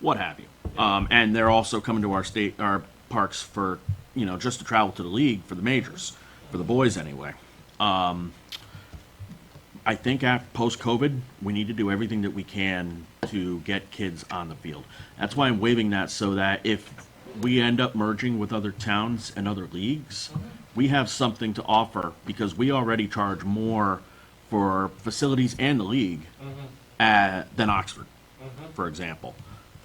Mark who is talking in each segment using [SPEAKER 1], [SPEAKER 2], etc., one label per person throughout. [SPEAKER 1] what have you. Um, and they're also coming to our state, our parks for, you know, just to travel to the league for the majors, for the boys anyway. Um, I think after post COVID, we need to do everything that we can to get kids on the field. That's why I'm waiving that so that if we end up merging with other towns and other leagues, we have something to offer because we already charge more for facilities and the league uh, than Oxford, for example.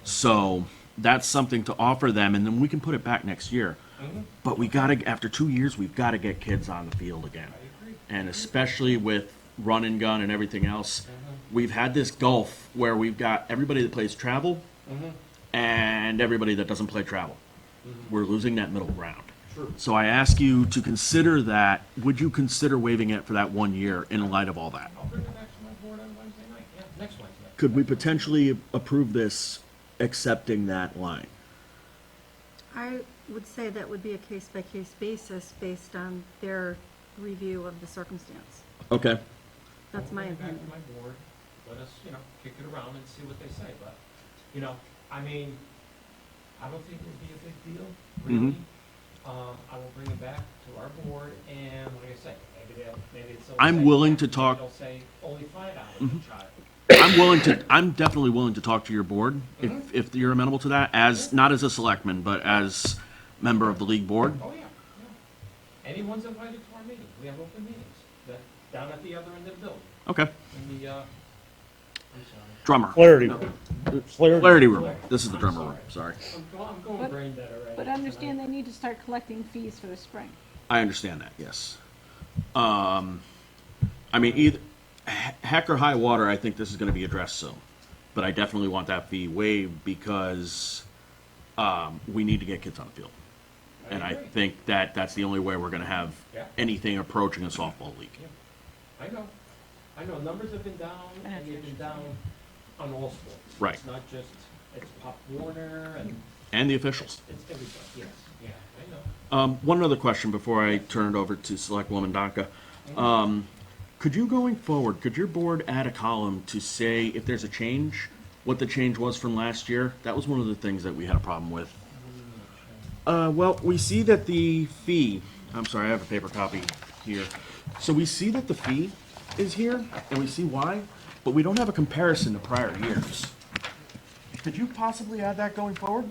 [SPEAKER 1] So that's something to offer them, and then we can put it back next year. But we gotta, after two years, we've gotta get kids on the field again. And especially with run and gun and everything else, we've had this gulf where we've got everybody that plays travel and everybody that doesn't play travel. We're losing that middle ground.
[SPEAKER 2] True.
[SPEAKER 1] So I ask you to consider that. Would you consider waiving it for that one year in light of all that?
[SPEAKER 2] I'll bring it back to my board on Wednesday night, yeah, next Wednesday.
[SPEAKER 1] Could we potentially approve this accepting that line?
[SPEAKER 3] I would say that would be a case-by-case basis based on their review of the circumstance.
[SPEAKER 1] Okay.
[SPEAKER 3] That's my
[SPEAKER 2] Bring it
[SPEAKER 3] opinion.
[SPEAKER 2] Back to my board, let us, you know, kick it around and see what they say, but, you know, I mean, I don't think it would be a big deal, really.
[SPEAKER 1] Mm-hmm.
[SPEAKER 2] Um, I will bring it back to our board and, like I say, maybe they'll, maybe it's.
[SPEAKER 1] I'm willing to talk- Mm-hmm.
[SPEAKER 2] They'll say only five dollars a child.
[SPEAKER 1] I'm willing to, I'm definitely willing to talk to your board if, if you're amenable to that, as, not as a selectman, but as member of the league board.
[SPEAKER 2] Oh, yeah, yeah. Anyone's invited to our meetings, we have open meetings, that, down at the other end of the building,
[SPEAKER 1] Okay.
[SPEAKER 2] in the, uh, I'm sorry.
[SPEAKER 1] Drummer.
[SPEAKER 4] Clarity.
[SPEAKER 1] Clarity room. This is the drummer room, sorry.
[SPEAKER 2] I'm go- I'm going
[SPEAKER 5] But-
[SPEAKER 2] brain dead already.
[SPEAKER 5] But understand they need to start collecting fees for the spring.
[SPEAKER 1] I understand that, yes. Um, I mean, either, he- heck or high water, I think this is gonna be addressed soon. But I definitely want that fee waived because, um, we need to get kids on the field. And I
[SPEAKER 2] agree.
[SPEAKER 1] think that that's the only way we're gonna have
[SPEAKER 2] Yeah.
[SPEAKER 1] anything approaching a softball league.
[SPEAKER 2] I know, I know, numbers have been down, and they've been down on all sports.
[SPEAKER 1] Right.
[SPEAKER 2] It's not just, it's Pop Warner, and
[SPEAKER 1] And the officials.
[SPEAKER 2] it's everybody, yes, yeah, I know.
[SPEAKER 1] Um, one other question before I turn it over to Selectwoman Danka. Um, could you going forward, could your board add a column to say if there's a change, what the change was from last year? That was one of the things that we had a problem with. Uh, well, we see that the fee, I'm sorry, I have a paper copy here. So we see that the fee is here and we see why, but we don't have a comparison to prior years. Could you possibly add that going forward?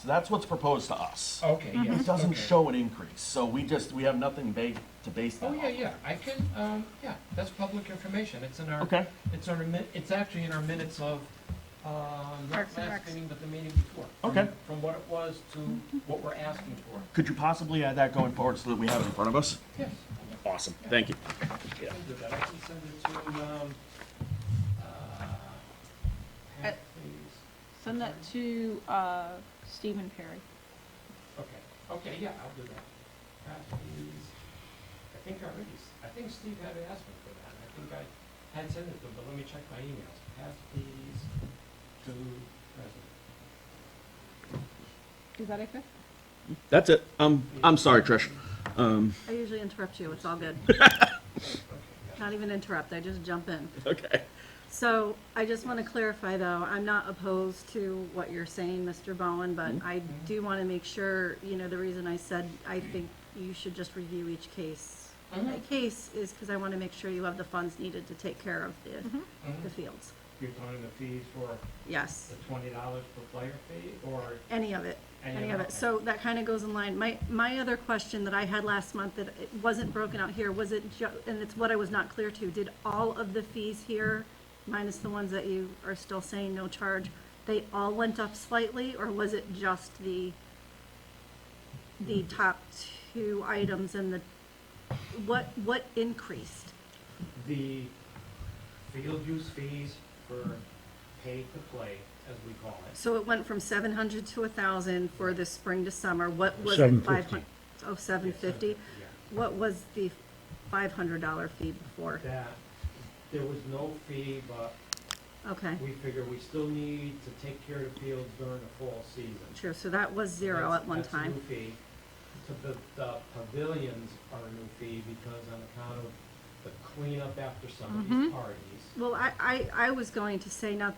[SPEAKER 1] So that's what's proposed to us.
[SPEAKER 2] Okay, yes.
[SPEAKER 1] It doesn't
[SPEAKER 2] okay.
[SPEAKER 1] show an increase, so we just, we have nothing ba- to base that
[SPEAKER 2] Oh,
[SPEAKER 1] on.
[SPEAKER 2] yeah, yeah, I can, um, yeah, that's public information, it's in our.
[SPEAKER 1] Okay.
[SPEAKER 2] It's on our, min- it's actually in our minutes of, um, not
[SPEAKER 3] Parks and
[SPEAKER 2] last
[SPEAKER 3] Recs.
[SPEAKER 2] meeting, but the meeting before. from-
[SPEAKER 1] Okay.
[SPEAKER 2] From what it was to what we're asking for,
[SPEAKER 1] Could you possibly add that going forward so that we have it in front of us?
[SPEAKER 2] yes.
[SPEAKER 1] Awesome, thank you.
[SPEAKER 2] I can do that. I can send it to, um, uh, Pat, please.
[SPEAKER 5] Send that to uh, Stephen Perry.
[SPEAKER 2] Okay, okay, yeah, I'll do that. Perhaps he's, I think I already, s- I think Steve had asked me for that, I think I had sent it to him, but let me check my emails. Perhaps he's to present.
[SPEAKER 5] Is that okay?
[SPEAKER 1] That's it. Um, I'm sorry, Trish.
[SPEAKER 3] I usually interrupt you, it's all good. Not even interrupt, I just jump in.
[SPEAKER 1] Okay.
[SPEAKER 3] So I just want to clarify, though, I'm not opposed to what you're saying, Mr. Bowen, but I do want to make sure, you know, the reason I said I think you should just review each case. by
[SPEAKER 2] Mhm.
[SPEAKER 3] case is because I want to make sure you have the funds needed to take care of the, the fields.
[SPEAKER 2] You're talking the fees for
[SPEAKER 3] Yes.
[SPEAKER 2] the twenty dollars per player fee, or?
[SPEAKER 3] any of it,
[SPEAKER 2] Any
[SPEAKER 3] any
[SPEAKER 2] of
[SPEAKER 3] of
[SPEAKER 2] it,
[SPEAKER 3] it. So that kind of goes in line. My, my other question that I had last month that it wasn't broken out here, was it, ju- and it's what I was not clear to, did all of the fees here, minus the ones that you are still saying no charge, they all went up slightly, or was it just the, the top two items and the, what, what increased?
[SPEAKER 2] The field use fees for pay to play, as we call it.
[SPEAKER 3] So it went from seven hundred to a thousand for the spring to summer, what was the
[SPEAKER 4] 750.
[SPEAKER 3] five hundred? Oh, seven fifty? What was the five hundred dollar fee before?
[SPEAKER 2] That, there was no fee, but
[SPEAKER 3] Okay,
[SPEAKER 2] we figure we still need to take care of the fields during the fall season.
[SPEAKER 3] true, so that was zero
[SPEAKER 2] That's-
[SPEAKER 3] at one
[SPEAKER 2] that's a new
[SPEAKER 3] time.
[SPEAKER 2] fee. To the, the pavilions are a new fee because on
[SPEAKER 3] Mm-hmm.
[SPEAKER 2] account of the cleanup after some of these parties.
[SPEAKER 3] Well, I, I, I was going to say, now